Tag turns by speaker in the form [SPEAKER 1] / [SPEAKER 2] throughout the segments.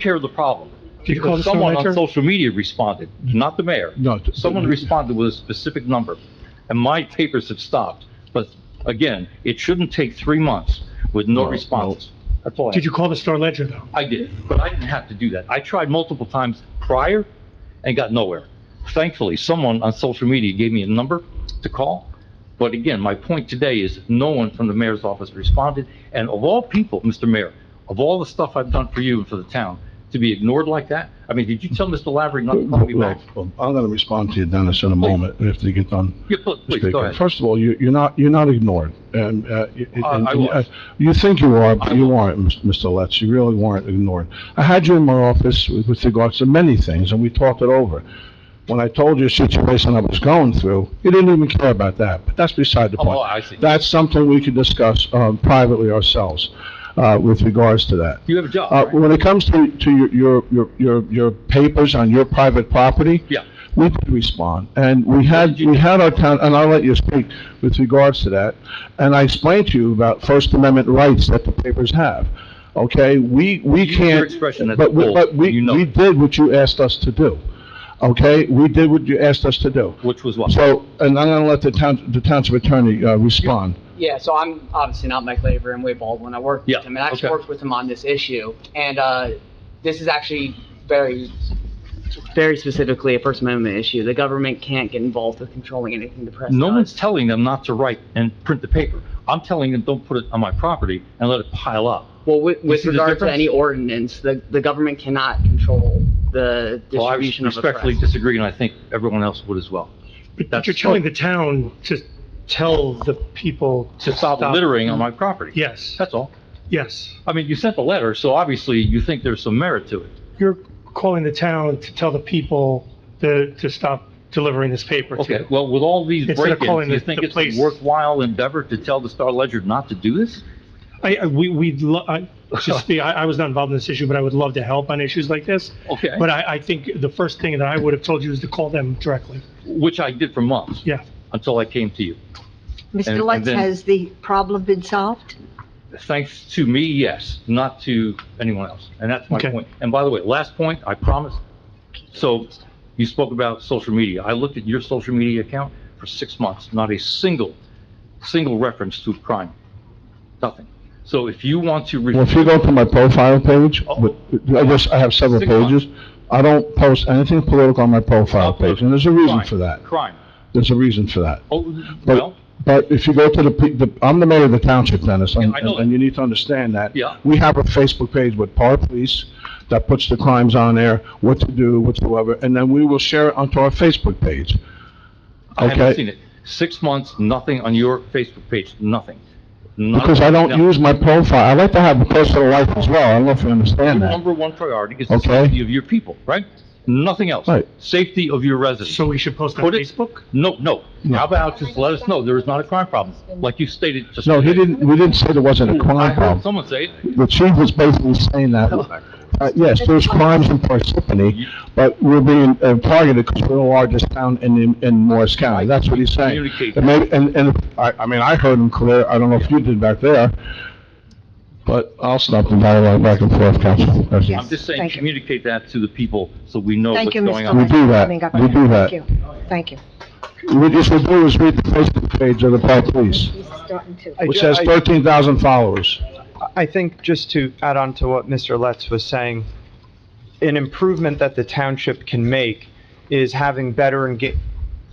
[SPEAKER 1] care of the problem.
[SPEAKER 2] Did you call
[SPEAKER 1] Because
[SPEAKER 2] the
[SPEAKER 1] someone on
[SPEAKER 2] senator?
[SPEAKER 1] social media responded, not the mayor.
[SPEAKER 2] No. t-
[SPEAKER 1] Someone responded with a specific number, and my papers have stopped. But again, it shouldn't take three months with no
[SPEAKER 3] No, no.
[SPEAKER 1] response. That's all I
[SPEAKER 2] Did you call the Star Ledger, though?
[SPEAKER 1] I did, but I didn't have to do that. I tried multiple times prior and got nowhere. Thankfully, someone on social media gave me a number to call. But again, my point today is no one from the mayor's office responded. And of all people, Mr. Mayor, of all the stuff I've done for you and for the town, to be ignored like that? I mean, did you tell Mr. Lavery not to call me back?
[SPEAKER 3] Well, I'm going to respond to you, Dennis, in a moment, if you get done.
[SPEAKER 1] Yeah, pl- Please, go
[SPEAKER 3] speaking.
[SPEAKER 1] ahead.
[SPEAKER 3] First of all, you, you're not, you're not ignored. And, uh, y-
[SPEAKER 1] Uh,
[SPEAKER 3] and-
[SPEAKER 1] I
[SPEAKER 3] and,
[SPEAKER 1] was.
[SPEAKER 3] uh, You think you are,
[SPEAKER 1] I
[SPEAKER 3] but you aren't, Ms- Mr. Letz. You really weren't ignored. I had you in my office with with regards to many things, and we talked it over. When I told you the situation I was going through, you didn't even care about that, but that's beside the
[SPEAKER 1] Oh,
[SPEAKER 3] point.
[SPEAKER 1] I see.
[SPEAKER 3] That's something we could discuss, um, privately ourselves, uh, with regards to that.
[SPEAKER 1] You have a job,
[SPEAKER 3] Uh,
[SPEAKER 1] right?
[SPEAKER 3] when it comes to, to your- your, your, your, your papers on your private property.
[SPEAKER 1] Yeah.
[SPEAKER 3] We did respond, and we had,
[SPEAKER 1] did you
[SPEAKER 3] we had our town, and I'll let you speak with regards to that. And I explained to you about First Amendment rights that the papers have, okay? We, we
[SPEAKER 1] Use
[SPEAKER 3] can't.
[SPEAKER 1] your expression at
[SPEAKER 3] but
[SPEAKER 1] the
[SPEAKER 3] we-
[SPEAKER 1] polls,
[SPEAKER 3] But we,
[SPEAKER 1] you know
[SPEAKER 3] we
[SPEAKER 1] it.
[SPEAKER 3] did what you asked us to do, okay? We did what you asked us to do.
[SPEAKER 1] Which was what?
[SPEAKER 3] So, and I'm gonna let the town, the township attorney, uh, respond.
[SPEAKER 4] Yeah, so I'm obviously not Mike Labor and Wade Baldwin. I work
[SPEAKER 1] Yeah,
[SPEAKER 4] with him, and I actually
[SPEAKER 1] okay.
[SPEAKER 4] worked with him on this issue. And uh, this is actually very, very specifically a First Amendment issue. The government can't get involved with controlling anything the press
[SPEAKER 1] No one's
[SPEAKER 4] does.
[SPEAKER 1] telling them not to write and print the paper. I'm telling them, don't put it on my property and let it pile up.
[SPEAKER 4] Well, with, with
[SPEAKER 1] see the
[SPEAKER 4] regard to
[SPEAKER 1] difference?
[SPEAKER 4] any ordinance, the, the government cannot control the
[SPEAKER 1] Well, I
[SPEAKER 4] distribution of the
[SPEAKER 1] respectfully
[SPEAKER 4] press.
[SPEAKER 1] disagree, and I think everyone else would as well.
[SPEAKER 2] But you're telling the town to tell the people.
[SPEAKER 1] To stop Mm-hmm. littering on my property.
[SPEAKER 2] Yes,
[SPEAKER 1] That's all.
[SPEAKER 2] yes.
[SPEAKER 1] I mean, you sent the letter, so obviously you think there's some merit to it.
[SPEAKER 2] You're calling the town to tell the people to, to stop delivering this paper to.
[SPEAKER 1] Okay, well, with all these
[SPEAKER 2] Instead of
[SPEAKER 1] break-ins,
[SPEAKER 2] calling
[SPEAKER 1] you
[SPEAKER 2] the-
[SPEAKER 1] think
[SPEAKER 2] the
[SPEAKER 1] it's a
[SPEAKER 2] police.
[SPEAKER 1] worthwhile endeavor to tell the Star Ledger not to do this?
[SPEAKER 2] I, I- we, we, lo- I, just be, I, I was not involved in this issue, but I would love to help on issues like this.
[SPEAKER 1] Okay,
[SPEAKER 2] But I, I think the first thing that I would have told you is to call them directly.
[SPEAKER 1] which I did for months,
[SPEAKER 2] Yeah.
[SPEAKER 1] until I came to you. And-
[SPEAKER 5] Mr.
[SPEAKER 1] and
[SPEAKER 5] Lutz,
[SPEAKER 1] then-
[SPEAKER 5] has the problem been solved?
[SPEAKER 1] Thanks to me, yes, not to anyone else. And that's my
[SPEAKER 2] Okay.
[SPEAKER 1] point. And by the way, last point, I promise. So you spoke about social media. I looked at your social media account for six months, not a single, single reference to crime. Nothing. So if you want to.
[SPEAKER 3] Well, if you go to my profile page, with- I just, I have several
[SPEAKER 1] Oh. Six months.
[SPEAKER 3] pages. I don't post anything political on my profile page, and there's a reason
[SPEAKER 1] Crime,
[SPEAKER 3] for that.
[SPEAKER 1] Crime.
[SPEAKER 3] There's a reason for that.
[SPEAKER 1] Oh,
[SPEAKER 3] But-
[SPEAKER 1] well,
[SPEAKER 3] But if you go to the pe- the, I'm the mayor of the township, Dennis, and,
[SPEAKER 1] Yeah, I know
[SPEAKER 3] and you need to understand that.
[SPEAKER 1] Yeah.
[SPEAKER 3] We have a Facebook page with Par Police that puts the crimes on there, what to do, whatsoever, and then we will share it onto our Facebook page.
[SPEAKER 1] I haven't
[SPEAKER 3] okay.
[SPEAKER 1] seen it. Six months, nothing on your Facebook page, nothing. Not-
[SPEAKER 3] Because I don't
[SPEAKER 1] no.
[SPEAKER 3] use my profile. I like to have a personal life as well. I don't know if you
[SPEAKER 1] Your
[SPEAKER 3] understand that.
[SPEAKER 1] number one priority is the
[SPEAKER 3] Okay.
[SPEAKER 1] safety of your people, right? Nothing else.
[SPEAKER 3] Right.
[SPEAKER 1] Safety of your residents.
[SPEAKER 2] So we should post on
[SPEAKER 1] Put it-
[SPEAKER 2] Facebook?
[SPEAKER 1] No, no.
[SPEAKER 3] No.
[SPEAKER 1] How about just let us know there is not a crime problem, like you stated just.
[SPEAKER 3] No, he
[SPEAKER 1] today.
[SPEAKER 3] didn't, we didn't say there wasn't a
[SPEAKER 1] Hmm, I
[SPEAKER 3] crime
[SPEAKER 1] heard
[SPEAKER 3] problem.
[SPEAKER 1] someone say it.
[SPEAKER 3] The chief was basically saying that, uh, yes, there's crimes in Parsippany, but we're being uh, targeted because we're the largest town in, in Morris County. That's what he's saying.
[SPEAKER 1] Communicate.
[SPEAKER 3] And maybe, and, and, I, I mean, I heard him clear, I don't know if you did back there, but I'll stop the dialogue back and forth, Council. That's-
[SPEAKER 5] Yes.
[SPEAKER 1] I'm just saying,
[SPEAKER 5] Thank you.
[SPEAKER 1] communicate that to the people so we know Oh, what's
[SPEAKER 5] Thank you,
[SPEAKER 1] going
[SPEAKER 5] Mr.
[SPEAKER 1] on.
[SPEAKER 5] Lutz.
[SPEAKER 3] We do
[SPEAKER 5] for
[SPEAKER 3] that.
[SPEAKER 5] coming up.
[SPEAKER 3] We do that.
[SPEAKER 5] Thank you. Thank you.
[SPEAKER 3] What you should do is read the Facebook page of the Park Police,
[SPEAKER 5] He's starting to.
[SPEAKER 6] I
[SPEAKER 3] which
[SPEAKER 6] ju-
[SPEAKER 3] has
[SPEAKER 6] I-
[SPEAKER 3] 13,000 followers.
[SPEAKER 6] I think just to add on to what Mr. Letz was saying, an improvement that the township can make is having better enga,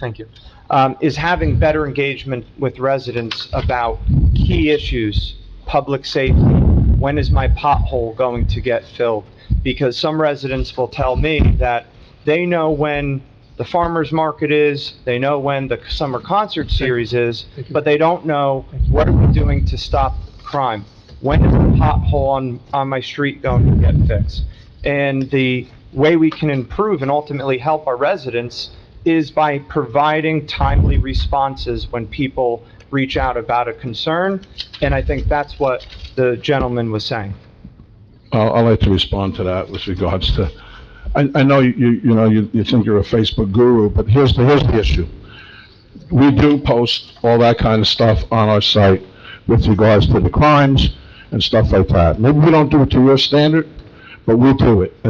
[SPEAKER 6] thank you, um, is having better engagement with residents about key issues, public safety, when is my pothole going to get filled? Because some residents will tell me that they know when the farmer's market is, they know when the summer concert series is,
[SPEAKER 2] Thank you.
[SPEAKER 6] but they don't know what are we doing to stop crime? When is the pothole on, on my street going to get fixed? And the way we can improve and ultimately help our residents is by providing timely responses when people reach out about a concern. And I think that's what the gentleman was saying.
[SPEAKER 3] I'll, I'd like to respond to that with regards to, I, I know you, you know, you, you think you're a Facebook guru, but here's the, here's the issue. We do post all that kind of stuff on our site with regards to the crimes and stuff like that. Maybe we don't do it to your standard, but we do it.